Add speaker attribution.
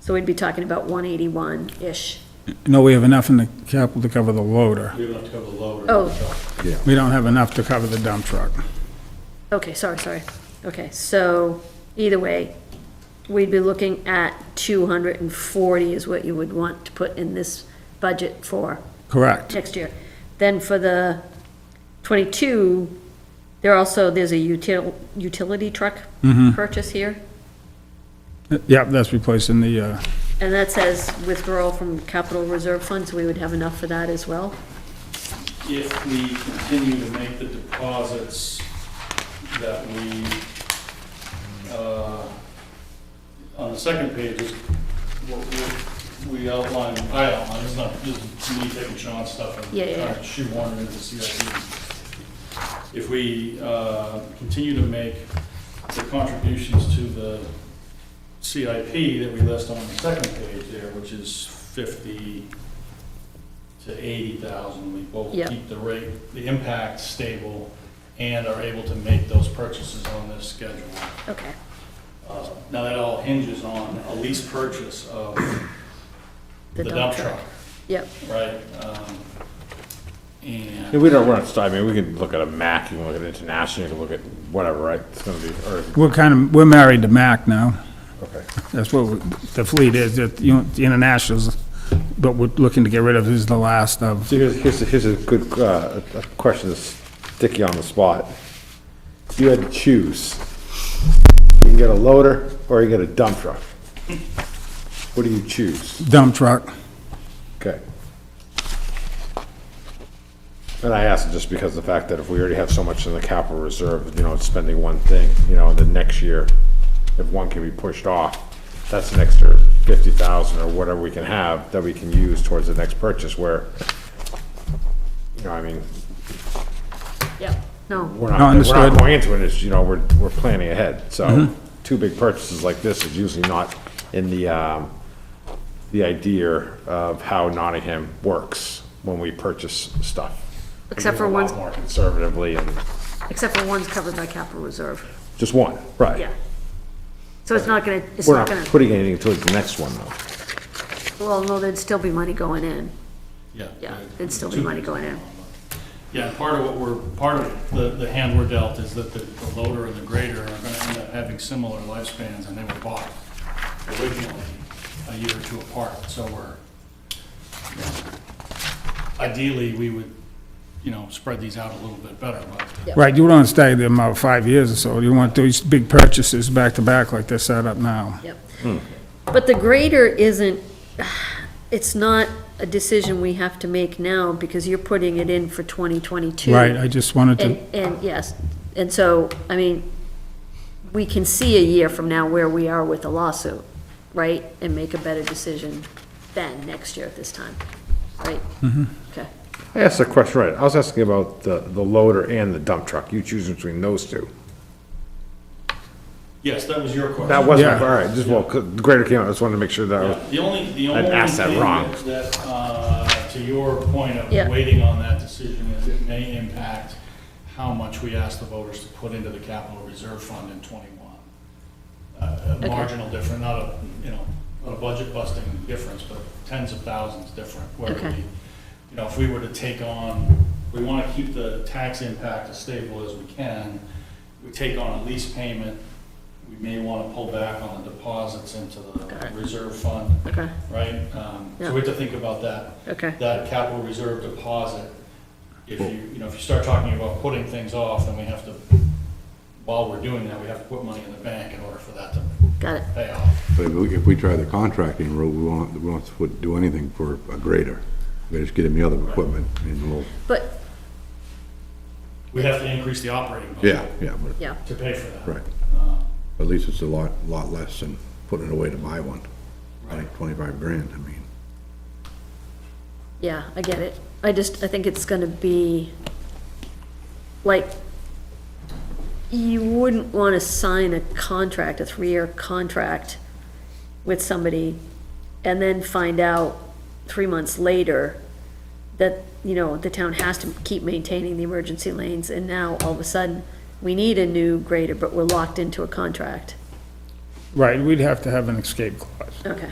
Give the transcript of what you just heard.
Speaker 1: So we'd be talking about one eighty-one-ish.
Speaker 2: No, we have enough in the capital to cover the loader.
Speaker 3: We don't have to have a loader.
Speaker 1: Oh,
Speaker 2: We don't have enough to cover the dump truck.
Speaker 1: okay, sorry, sorry. Okay, so either way, we'd be looking at two hundred and forty is what you would want to put in this budget for
Speaker 2: Correct.
Speaker 1: next year. Then for the twenty-two, there also, there's a util, utility truck purchase here.
Speaker 2: Yep, that's replacing the, uh,
Speaker 1: And that says withdrawal from capital reserve funds, we would have enough for that as well.
Speaker 3: If we continue to make the deposits that we, uh, on the second page is what we- we outlined, I outlined, it's not just me taking Sean's stuff
Speaker 1: Yeah, yeah,
Speaker 3: and
Speaker 1: yeah.
Speaker 3: trying to shoehorn it into the CIP. If we uh, continue to make the contributions to the CIP that we list on the second page there, which is fifty to eighty thousand, we both
Speaker 1: Yeah.
Speaker 3: keep the rate, the impact stable, and are able to make those purchases on this schedule.
Speaker 1: Okay,
Speaker 3: Uh, Now, that all hinges on a lease purchase of
Speaker 1: the
Speaker 3: the
Speaker 1: dump
Speaker 3: dump
Speaker 1: truck.
Speaker 3: truck,
Speaker 1: Yep,
Speaker 3: right? Um, And.
Speaker 4: Yeah, we don't, we're not, I mean, we can look at a Mac, you can look at international, you can look at whatever, right? It's gonna be, or,
Speaker 2: we're kind of, we're married to Mack now.
Speaker 4: okay.
Speaker 2: That's what we- the fleet is, that, you know, the internationals, but we're looking to get rid of is the last of.
Speaker 4: So here's, here's, a- here's a good, uh, a question that's sticky on the spot. If you had to choose, you can get a loader or you get a dump truck. What do you choose?
Speaker 2: Dump truck.
Speaker 4: Okay. And I ask just because of the fact that if we already have so much in the capital reserve, you know, it's spending one thing, you know, the next year, if one can be pushed off, that's an extra fifty thousand or whatever we can have that we can use towards the next purchase where, you know, I mean,
Speaker 1: yep, no,
Speaker 4: we're not,
Speaker 2: No,
Speaker 4: we're
Speaker 2: understood. Mm-hmm.
Speaker 4: not going into it, it's, you know, we're, we're planning ahead, so two big purchases like this is usually not in the, um, the idea of how Nottingham works when we purchase stuff.
Speaker 1: Except
Speaker 4: We
Speaker 1: for
Speaker 4: do a lot
Speaker 1: one's-
Speaker 4: More conservatively and,
Speaker 1: except for one's covered by capital reserve,
Speaker 4: just one, right.
Speaker 1: yeah. So it's not gonna, it's
Speaker 4: We're
Speaker 1: not
Speaker 4: not
Speaker 1: gonna,
Speaker 4: putting anything towards the next one though.
Speaker 1: well, no, there'd still be money going in,
Speaker 3: Yeah.
Speaker 1: yeah, there'd still be money going in.
Speaker 3: Yeah, part of what we're, part of the, the hand we're dealt is that the the loader and the grader are gonna end up having similar lifespans, and they were bought originally a year or two apart, so we're, you know, ideally, we would, you know, spread these out a little bit better, but
Speaker 2: Right, you don't stagger them about five years or so. You want those big purchases back to back like they're set up now.
Speaker 1: Yep. But the grader isn't, it's not a decision we have to make now because you're putting it in for twenty twenty-two.
Speaker 2: Right, I just wanted to,
Speaker 1: And, and, yes, and so, I mean, we can see a year from now where we are with the lawsuit, right? And make a better decision then, next year at this time, right? Mm-hmm. Okay,
Speaker 4: I asked a question, right, I was asking about the, the loader and the dump truck, you choose between those two.
Speaker 3: yes, that was your question.
Speaker 4: That wasn't,
Speaker 2: Yeah.
Speaker 4: all right, just, well, 'cause the grader came out, I just wanted to make sure that was
Speaker 3: Yeah, The only, the
Speaker 4: I'd
Speaker 3: only
Speaker 4: asked that
Speaker 3: thing
Speaker 4: wrong.
Speaker 3: that- that, uh, to your point of
Speaker 1: Yeah.
Speaker 3: waiting on that decision is it may impact how much we ask the voters to put into the capital reserve fund in twenty-one. A- A marginal difference, not a, you know, not a budget busting difference, but tens of thousands different. Where
Speaker 1: Okay.
Speaker 3: we, you know, if we were to take on, we want to keep the tax impact as stable as we can. We take on a lease payment, we may want to pull back on the deposits into
Speaker 1: Got
Speaker 3: the
Speaker 1: it.
Speaker 3: reserve fund
Speaker 1: okay,
Speaker 3: right? Um,
Speaker 1: Yeah.
Speaker 3: So we have to think about that,
Speaker 1: okay,
Speaker 3: that capital reserve deposit. If you, you know, if you start talking about putting things off, then we have to, while we're doing that, we have to put money in the bank in order for that to
Speaker 1: got it,
Speaker 3: pay off.
Speaker 5: But if we- if we try the contracting route, we won't, we won't put- do anything for a grader. We just get him the other equipment and we'll,
Speaker 1: but,
Speaker 3: We have to increase the operating
Speaker 5: yeah,
Speaker 3: budget
Speaker 5: yeah, but,
Speaker 1: yeah,
Speaker 3: to pay for that.
Speaker 5: right. At least it's a lot, lot less than putting it away to buy one, like twenty-five grand, I mean.
Speaker 1: yeah, I get it. I just, I think it's gonna be, like, you wouldn't wanna sign a contract, a three-year contract with somebody and then find out three months later that, you know, the town has to keep maintaining the emergency lanes and now all of a sudden, we need a new grader, but we're locked into a contract.
Speaker 2: right, we'd have to have an escape clause.
Speaker 1: Okay.